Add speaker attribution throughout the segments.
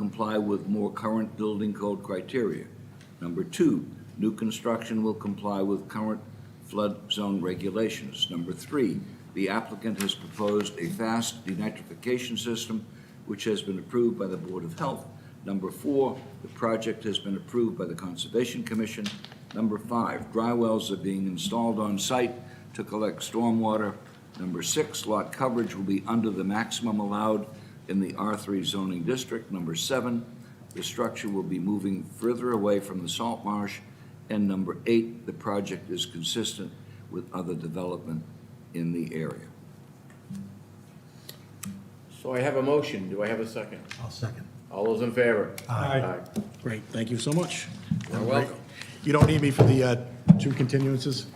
Speaker 1: comply with more current building code criteria. Number two, new construction will comply with current flood zone regulations. Number three, the applicant has proposed a fast denitrification system which has been approved by the Board of Health. Number four, the project has been approved by the Conservation Commission. Number five, dry wells are being installed on site to collect stormwater. Number six, lot coverage will be under the maximum allowed in the R3 zoning district. Number seven, the structure will be moving further away from the salt marsh. And number eight, the project is consistent with other development in the area.
Speaker 2: So I have a motion. Do I have a second?
Speaker 3: I'll second.
Speaker 2: All those in favor?
Speaker 3: Aye. Great, thank you so much.
Speaker 2: You're welcome.
Speaker 3: You don't need me for the uh, two continuances?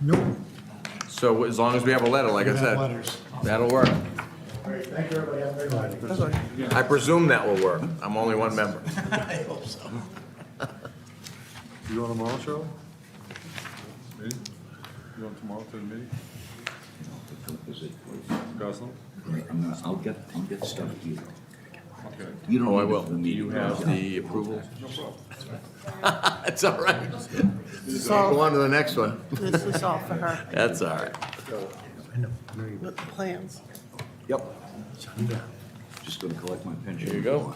Speaker 3: Nope.
Speaker 2: So as long as we have a letter, like I
Speaker 3: You have
Speaker 2: said,
Speaker 3: letters.
Speaker 2: that'll work.
Speaker 3: All right, thank you, everybody, have a great night.
Speaker 2: I presume that will work. I'm only one member.
Speaker 3: I hope so.
Speaker 4: You going tomorrow, Cheryl? Meeting? You going tomorrow to the meeting,
Speaker 1: Is it-
Speaker 4: Gosnell?
Speaker 1: I'm gonna- I'll get, I'll get stuff to you.
Speaker 4: Okay.
Speaker 1: You don't
Speaker 2: Oh, I
Speaker 1: need it
Speaker 2: will.
Speaker 1: for the
Speaker 2: Do you
Speaker 1: meeting.
Speaker 2: have the approval?
Speaker 4: No problem.
Speaker 2: That's all right.
Speaker 5: This is
Speaker 2: Go
Speaker 5: all,
Speaker 2: on to the next one.
Speaker 5: this is all for her,
Speaker 2: That's all right.
Speaker 5: with the plans.
Speaker 1: Yep. Just gonna collect my pension.
Speaker 2: Here you go.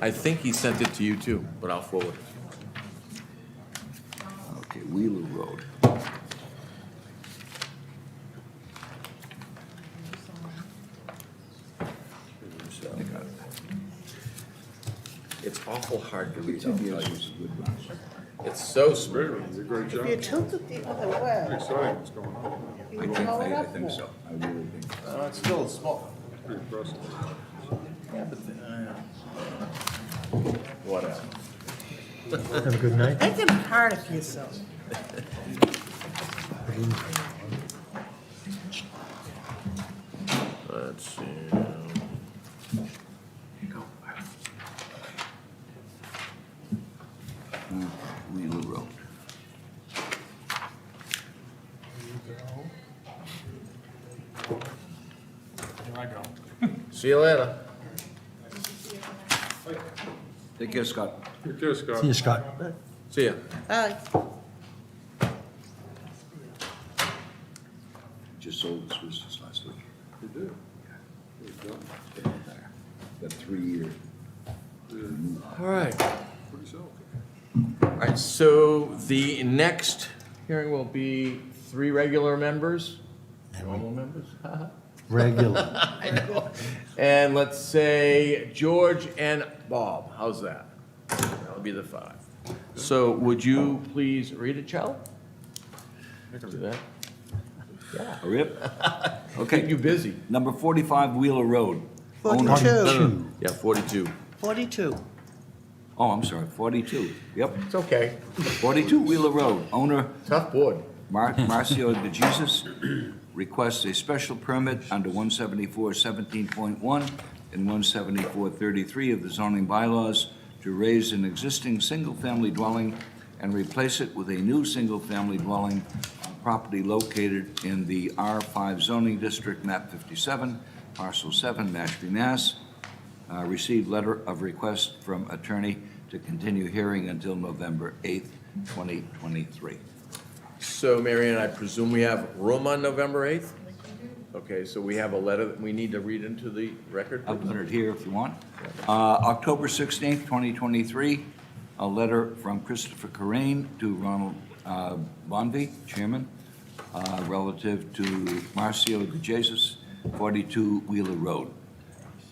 Speaker 2: I think he sent it to you too, but I'll forward it.
Speaker 1: Okay, Wheeler Road. I got it.
Speaker 2: It's awful hard to read.
Speaker 1: Ten years was a good run.
Speaker 2: It's so smooth.
Speaker 4: Great, you did a great
Speaker 5: If you
Speaker 4: job.
Speaker 5: tilt it the other way,
Speaker 4: Exciting, what's going on?
Speaker 5: you
Speaker 1: I
Speaker 5: would
Speaker 1: think,
Speaker 5: blow it
Speaker 1: I I
Speaker 5: up
Speaker 1: think
Speaker 5: more.
Speaker 1: so. I really think. so.
Speaker 6: Uh, It's still small.
Speaker 4: Pretty impressive.
Speaker 6: Yeah, but, uh,
Speaker 2: Whatever.
Speaker 3: Have a good night.
Speaker 5: Thinking hard of yourself.
Speaker 2: Let's see.
Speaker 1: Mm, Wheeler Road.
Speaker 2: See you later.
Speaker 1: Take care, Scott.
Speaker 4: Good care, Scott.
Speaker 3: Scott.
Speaker 2: See ya.
Speaker 5: Uh,
Speaker 1: Just sold this business last week.
Speaker 4: You did. Good job.
Speaker 1: Got three-year.
Speaker 2: All right.
Speaker 4: Pretty solid.
Speaker 2: All right, so the next hearing will be three regular members, normal members.
Speaker 3: Regular.
Speaker 2: And let's say George and Bob, how's that? That'll be the five. So would you please read it, Charlie? Do that.
Speaker 1: Hurry up.
Speaker 2: Keep
Speaker 1: Okay,
Speaker 2: you busy.
Speaker 1: number forty-five Wheeler Road. Owner-
Speaker 3: Two.
Speaker 2: No, no, no. Yeah, forty-two.
Speaker 5: forty-two.
Speaker 1: Oh, I'm sorry, forty-two. Yep,
Speaker 2: It's okay.
Speaker 1: forty-two Wheeler Road. Owner
Speaker 2: Tough board.
Speaker 1: Mar- Marcio de Jesus requests a special permit under 174-17.1 and 174-33 of the zoning bylaws to raise an existing single-family dwelling and replace it with a new single-family dwelling on property located in the R5 zoning district, map 57, parcel 7, Mashpee, Mass. Uh, Received letter of request from attorney to continue hearing until November 8th, 2023.
Speaker 2: So Marion, I presume we have room on November eighth? Okay, so we have a letter that we need to read into the record?
Speaker 1: I'll put it here if you want. Uh, October 16th, 2023, a letter from Christopher Corain to Ronald uh, Bonvy, Chairman, uh, relative to Marcio De Jesus, 42 Wheeler Road.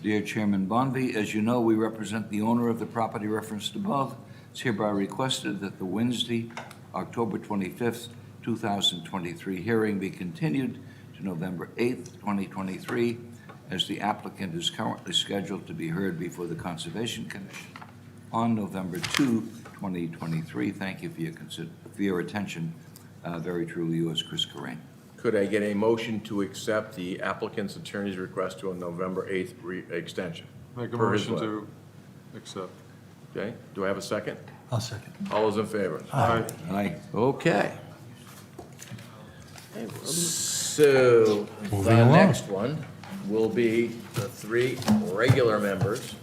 Speaker 1: Dear Chairman Bonvy, as you know, we represent the owner of the property referenced above. It's hereby requested that the Wednesday, October 25th, 2023 hearing be continued to November 8th, 2023, as the applicant is currently scheduled to be heard before the Conservation Commission on November 2, 2023. Thank you for your consider, for your attention. Uh, Very truly yours, Chris Corain.
Speaker 2: Could I get a motion to accept the applicant's attorney's request to a November 8th re- extension?
Speaker 4: Make a
Speaker 2: Per his
Speaker 4: motion
Speaker 2: letter.
Speaker 4: to accept.
Speaker 2: Okay, do I have a second?
Speaker 3: I'll second.
Speaker 2: All those in favor?
Speaker 4: Aye.
Speaker 1: Aye.
Speaker 2: Okay. So, the
Speaker 3: along.
Speaker 2: next one will be the three regular members.